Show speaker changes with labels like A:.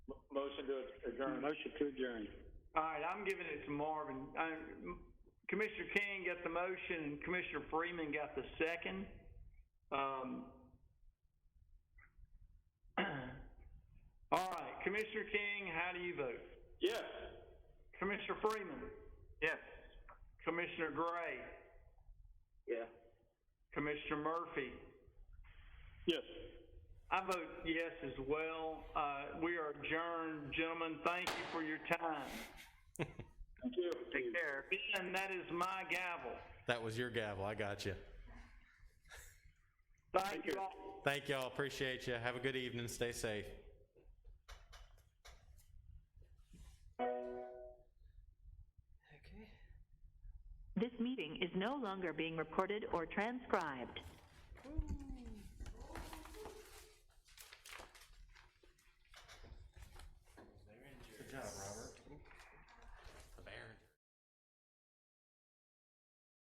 A: adjourn.
B: Motion to adjourn.
A: All right, I'm giving it to Marvin. Uh, Commissioner King got the motion, Commissioner Freeman got the second. Um, All right, Commissioner King, how do you vote?
B: Yes.
A: Commissioner Freeman? Yes. Commissioner Gray?
B: Yeah.
A: Commissioner Murphy?
B: Yes.
A: I vote yes as well. Uh, we are adjourned, gentlemen. Thank you for your time.
B: Thank you.
C: Take care.
A: Ben, that is my gavel.
D: That was your gavel. I got you.
A: Thank you all.
D: Thank y'all. Appreciate you. Have a good evening. Stay safe.
E: Okay.
F: This meeting is no longer being recorded or transcribed.